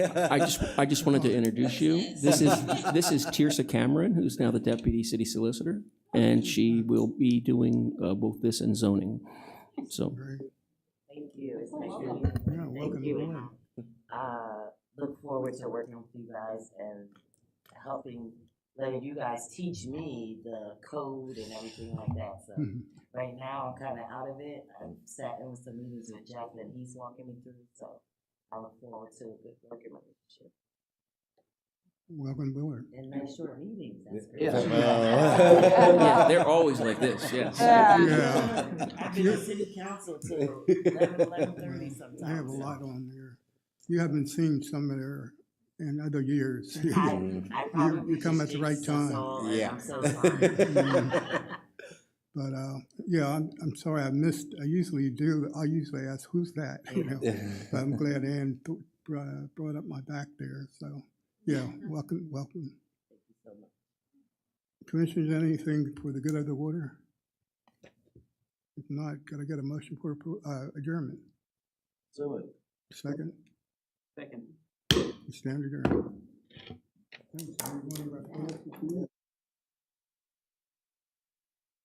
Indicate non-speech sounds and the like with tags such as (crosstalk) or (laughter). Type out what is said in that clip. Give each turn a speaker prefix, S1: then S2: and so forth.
S1: I just, (laughs) I just wanted to introduce you. This is, this is Tirsa Cameron, who's now the deputy city solicitor, and she will be doing uh, both this and zoning. So,
S2: Thank you. It's nice to meet you.
S3: Yeah, welcome
S2: Thank
S3: to the
S2: you.
S3: room.
S2: Uh, Look forward to working with you guys and helping, letting you guys teach me the code and everything like that.
S3: (laughs)
S2: So
S3: Mhm.
S2: right now, I'm kind of out of it. I'm sat in with some meetings with Jeff and he's walking me through. So I look forward to a good working relationship
S3: Welcome aboard.
S2: and nice short meetings. That's great.
S1: Yeah. yeah, (laughs)
S4: Wow.
S1: they're always like this,
S2: (laughs)
S1: yes.
S4: Yeah.
S3: Yeah.
S2: I've been in city council till eleven, eleven thirty sometimes.
S3: I have a lot on there. You haven't seen some of there in other years.
S2: (laughs)
S3: (laughs)
S2: I, I probably
S3: you come
S2: just
S3: at the
S2: jinxed
S3: right
S2: us
S3: time. Mm.
S2: all, and
S4: Yeah.
S2: I'm so (laughs) sorry.
S3: But, uh, yeah, I'm, I'm sorry I missed, I usually do, I usually ask, who's that? You know, but I'm glad Ann th- br- uh, brought up my back there, so, yeah, welcome, welcome. Commissioners, anything for the good of the order? If not, could I get a motion for appro- uh, adjournment? Second? Second. Stand adjourned. Thanks, everyone.